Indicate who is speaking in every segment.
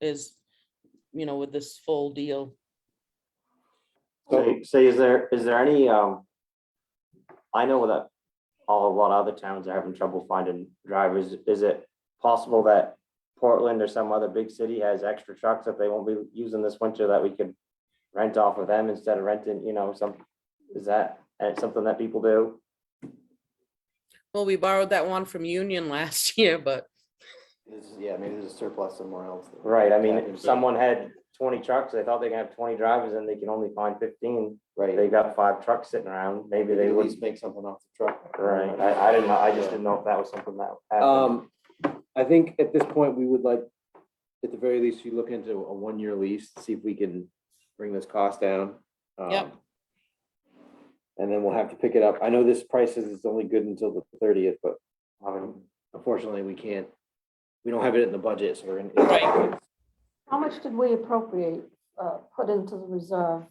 Speaker 1: is, you know, with this full deal.
Speaker 2: So, so is there, is there any, um, I know that a lot of other towns are having trouble finding drivers. Is it possible that Portland or some other big city has extra trucks that they won't be using this winter that we could rent off of them instead of renting, you know, some, is that, uh, something that people do?
Speaker 1: Well, we borrowed that one from Union last year, but
Speaker 3: There's- Yeah, maybe there's a surplus somewhere else. that-
Speaker 2: Right, I mean,
Speaker 3: Tap into
Speaker 2: if
Speaker 3: it.
Speaker 2: someone had twenty trucks, they thought they could have twenty drivers and they can only find fifteen. They
Speaker 3: Right,
Speaker 2: got five trucks sitting around, maybe
Speaker 3: they
Speaker 2: they
Speaker 3: at
Speaker 2: would,
Speaker 3: least make something off the truck.
Speaker 2: right, I, I didn't know, I just didn't know if that was something that happened.
Speaker 4: Um, I think at this point, we would like, at the very least, you look into a one-year lease, see if we can bring this cost down.
Speaker 1: Yep.
Speaker 4: um, And then we'll have to pick it up. I know this price is, it's only good until the thirtieth, but um, unfortunately, we can't, we don't have it in the budget, so we're in.
Speaker 1: Right.
Speaker 5: How much did we appropriate, uh, put into the reserve?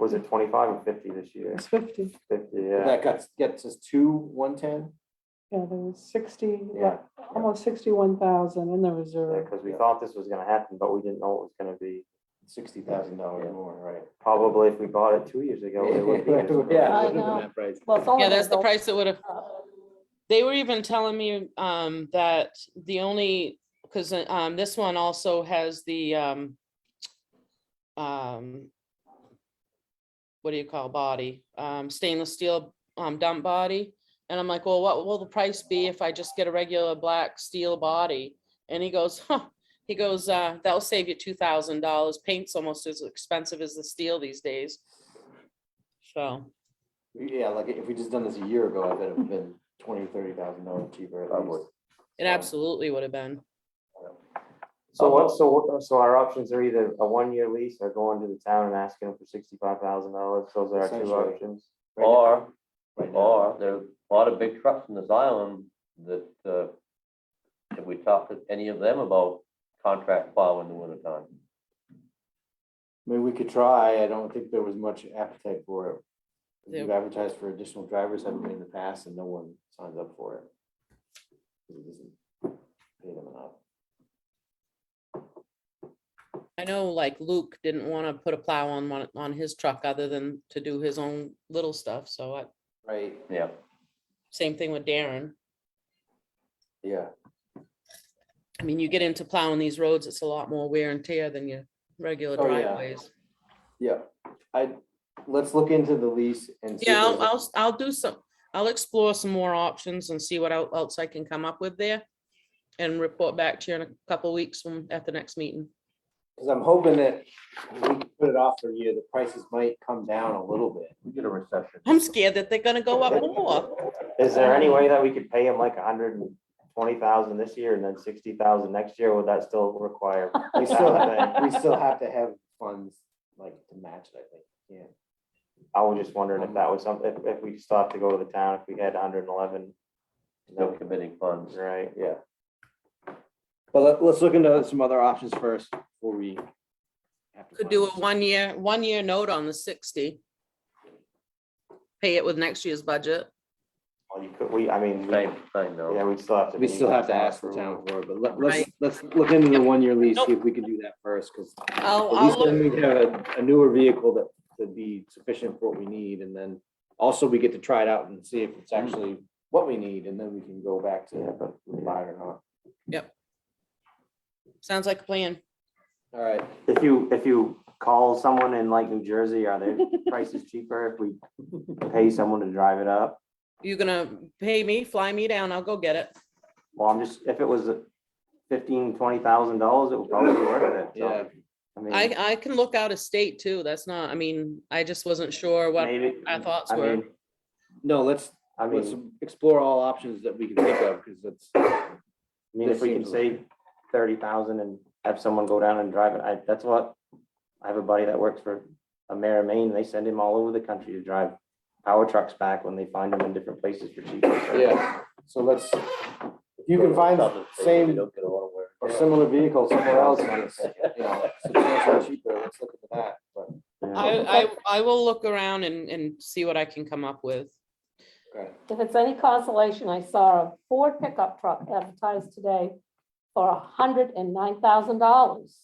Speaker 2: Was it twenty-five or fifty this year?
Speaker 6: It's fifty,
Speaker 2: Fifty, yeah.
Speaker 4: That gets, gets us to one-ten?
Speaker 6: yeah, there was sixty, like, almost sixty-one thousand in the reserve.
Speaker 2: Because we thought this was gonna happen, but we didn't know it was gonna be.
Speaker 3: Sixty thousand dollars more, right?
Speaker 2: Probably if we bought it two years ago, it would be. this price.
Speaker 4: Yeah. it
Speaker 5: I
Speaker 4: would've been
Speaker 5: know.
Speaker 4: that price.
Speaker 5: Oh, Well, it's only
Speaker 1: Yeah, that's the
Speaker 5: gonna go
Speaker 1: price that would have,
Speaker 5: up.
Speaker 1: they were even telling me um that the only, because um this one also has the um um what do you call body, um stainless steel um dump body. And I'm like, well, what will the price be if I just get a regular black steel body? And he goes, huh, he goes, uh, that'll save you two thousand dollars. Paint's almost as expensive as the steel these days. So.
Speaker 3: Yeah, like if we just done this a year ago, I bet it would've been twenty, thirty thousand dollars cheaper at
Speaker 2: Probably.
Speaker 3: least.
Speaker 1: It
Speaker 3: So-
Speaker 1: absolutely would have been.
Speaker 2: So what, so, what- so our options are either a one-year lease or going to the town and asking them for sixty-five thousand dollars. Those are our two
Speaker 3: Essentially.
Speaker 2: options.
Speaker 3: Right now-
Speaker 7: Or,
Speaker 3: right now,
Speaker 7: or there are a lot of big trucks in this island that, uh, have we talked to any of them about contract plow in the winter time?
Speaker 3: I mean, we could try. I don't think there was much appetite for it.
Speaker 1: Yeah.
Speaker 3: We've advertised for additional drivers, haven't we, in the past, and no one signs up for it. 'Cause it doesn't pay them enough.
Speaker 1: I know like Luke didn't want to put a plow on one, on his truck other than to do his own little stuff. So I,
Speaker 3: Right,
Speaker 7: Yeah,
Speaker 1: same thing with Darren.
Speaker 3: yeah.
Speaker 1: I mean, you get into plowing these roads, it's a lot more wear and tear than your regular
Speaker 3: Oh, yeah.
Speaker 1: driveways.
Speaker 3: Yeah, I, let's look into the lease and. see if
Speaker 1: Yeah, I'll,
Speaker 3: there's a-
Speaker 1: I'll, s- I'll do some, I'll explore some more options and see what el- else I can come up with there. And report back to you in a couple weeks from, at the next meeting.
Speaker 3: Cause I'm hoping that if we can put it off for a year, the prices might come down a little bit.
Speaker 7: we get a recession.
Speaker 1: I'm scared that they're gonna go up more.
Speaker 2: Is there any way that we could pay them like a hundred and twenty thousand this year and then sixty thousand next year? Would that still require?
Speaker 3: We still, have- we still have to have funds like to match it, I think, yeah.
Speaker 2: I was just wondering if that was something, if, if we still have to go to the town, if we had hundred and eleven.
Speaker 7: No committing funds.
Speaker 2: Right,
Speaker 3: Yeah.
Speaker 4: But let- let's look into some other options first before we. have to
Speaker 1: Could do a
Speaker 4: finalize.
Speaker 1: one-year, one-year note on the sixty. Pay it with next year's budget.
Speaker 2: well, you could, we, I mean, we-
Speaker 7: Same, same
Speaker 2: yeah,
Speaker 7: though.
Speaker 2: we still have to.
Speaker 4: We still have to ask the
Speaker 2: approve.
Speaker 4: town for it, but let,
Speaker 1: Right.
Speaker 4: let's, let's look into the one-year lease,
Speaker 1: Nope.
Speaker 4: see if we can do that first, because
Speaker 1: I'll,
Speaker 4: at least
Speaker 1: I'll look
Speaker 4: then we have a, a newer vehicle that, that'd be sufficient for what we need, and then also we get to try it out and see if
Speaker 3: Mm.
Speaker 4: it's actually what we need, and then we can go back
Speaker 2: Yeah,
Speaker 4: to
Speaker 2: but.
Speaker 4: buy it or not.
Speaker 1: Sounds like a plan.
Speaker 4: All right,
Speaker 2: If you, if you call someone in like New Jersey, are their prices cheaper if we pay someone to drive it up?
Speaker 1: You're gonna pay me, fly me down, I'll go get it.
Speaker 2: Well, I'm just, if it was fifteen, twenty thousand dollars, it would probably be worth it. so,
Speaker 4: yeah,
Speaker 2: I mean,
Speaker 1: I, I can look out of state too. That's not, I mean, I just wasn't sure what
Speaker 2: maybe-
Speaker 1: our thoughts
Speaker 2: I
Speaker 1: were.
Speaker 2: mean,
Speaker 4: no, let's,
Speaker 2: I mean,
Speaker 4: let's explore all options that we can think of, because it's,
Speaker 2: I mean, if we can save thirty thousand and have someone go down and drive it, I, that's what. I have a buddy that works for a mayor of Maine, they send him all over the country to drive power trucks back when they find them in different places for cheaper. so.
Speaker 3: Yeah, so let's, if you can find the
Speaker 7: We
Speaker 3: same
Speaker 7: don't get a lot of wear.
Speaker 3: or similar vehicle somewhere else, and it's, you know, substantially cheaper, let's look at that, but.
Speaker 2: Yeah.
Speaker 1: I, I, I will look around and, and see what I can come up with.
Speaker 3: Okay.
Speaker 5: If it's any consolation, I saw a Ford pickup truck advertised today for hundred and nine thousand dollars.